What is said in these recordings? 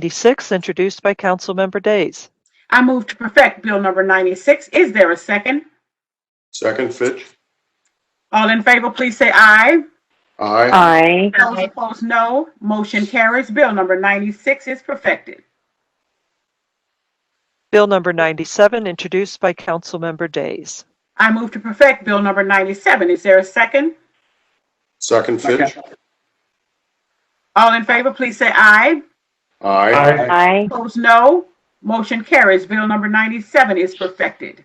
96, introduced by Councilmember Days. I move to perfect Bill number 96. Is there a second? Second, Fitch. All in favor, please say aye. Aye. Aye. Those opposed, no. Motion carries. Bill number 96 is perfected. Bill number 97, introduced by Councilmember Days. I move to perfect Bill number 97. Is there a second? Second, Fitch. All in favor, please say aye. Aye. Aye. Opposed, no. Motion carries. Bill number 97 is perfected.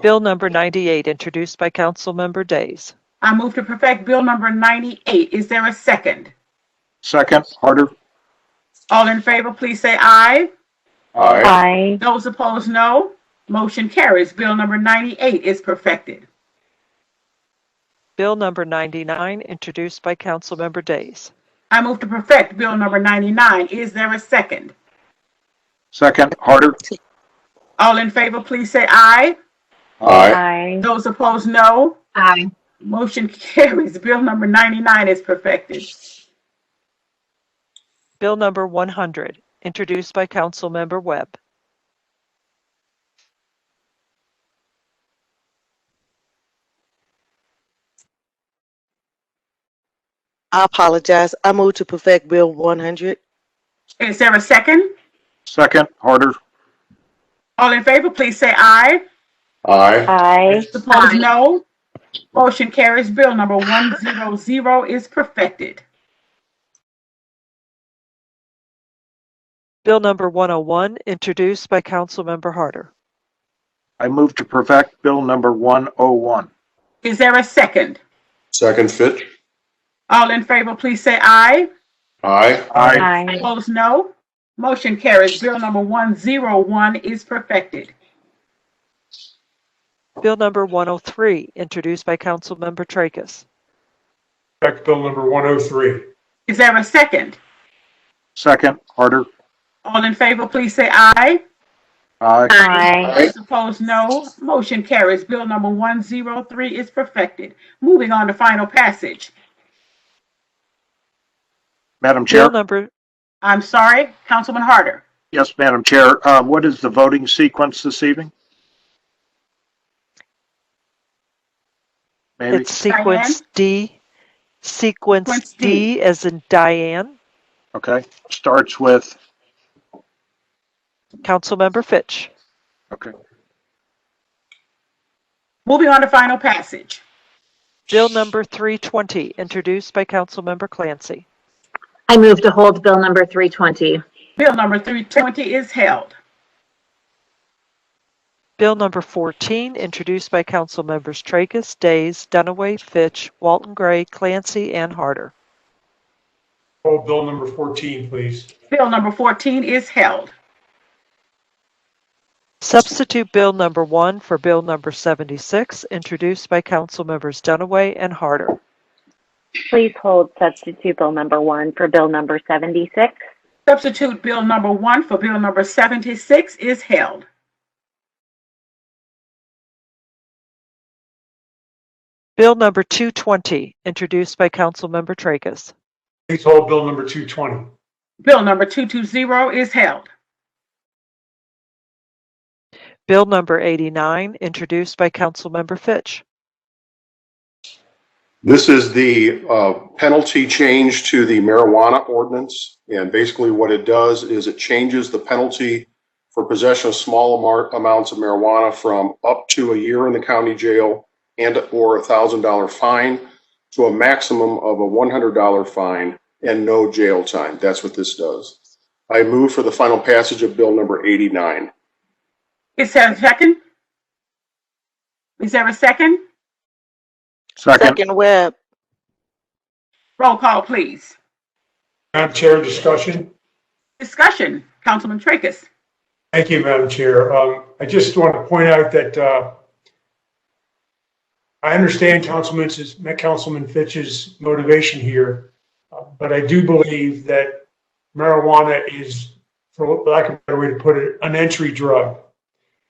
Bill number 98, introduced by Councilmember Days. I move to perfect Bill number 98. Is there a second? Second, Harder. All in favor, please say aye. Aye. Aye. Those opposed, no. Motion carries. Bill number 98 is perfected. Bill number 99, introduced by Councilmember Days. I move to perfect Bill number 99. Is there a second? Second, Harder. All in favor, please say aye. Aye. Aye. Those opposed, no. Aye. Motion carries. Bill number 99 is perfected. Bill number 100, introduced by Councilmember Webb. I apologize. I move to perfect Bill 100. Is there a second? Second, Harder. All in favor, please say aye. Aye. Aye. Opposed, no. Motion carries. Bill number 100 is perfected. Bill number 101, introduced by Councilmember Harder. I move to perfect Bill number 101. Is there a second? Second, Fitch. All in favor, please say aye. Aye. Aye. Aye. Opposed, no. Motion carries. Bill number 101 is perfected. Bill number 103, introduced by Councilmember Tracus. Check Bill number 103. Is there a second? Second, Harder. All in favor, please say aye. Aye. Aye. Those opposed, no. Motion carries. Bill number 103 is perfected. Moving on to final passage. Madam Bill Chair? number, I'm sorry, Councilman Harder. Yes, Madam Chair. Uh, What is the voting sequence this evening? Maybe, it's sequence D, sequence Sequence D D. as in Diane, okay. Starts with, Councilmember Fitch. okay. Moving on to final passage. Bill number 320, introduced by Councilmember Clancy. I move to hold Bill number 320. Bill number 320 is held. Bill number 14, introduced by Councilmembers Tracus, Days, Dunaway, Fitch, Walton Gray, Clancy, and Harder. Hold Bill number 14, please. Bill number 14 is held. Substitute Bill number 1 for Bill number 76, introduced by Councilmembers Dunaway and Harder. Please hold substitute Bill number 1 for Bill number 76. Substitute Bill number 1 for Bill number 76 is held. Bill number 220, introduced by Councilmember Tracus. Please hold Bill number 220. Bill number 220 is held. Bill number 89, introduced by Councilmember Fitch. This is the uh, penalty change to the marijuana ordinance. And basically what it does is it changes the penalty for possession of small amar- amounts of marijuana from up to a year in the county jail and/or a $1,000 fine to a maximum of a $100 fine and no jail time. That's what this does. I move for the final passage of Bill number 89. Is there a second? Is there a second? Second, Second Webb. Roll call, please. Madam Chair, discussion? Discussion, Councilman Tracus. Thank you, Madam Chair. Um, I just want to point out that uh, I understand Councilman's, Councilman Fitch's motivation here, uh, but I do believe that marijuana is, for lack of a better way to put it, an entry drug,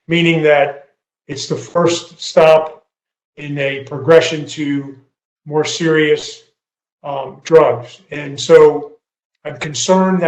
meaning that it's the first stop in a progression to more serious um, drugs. And so I'm concerned that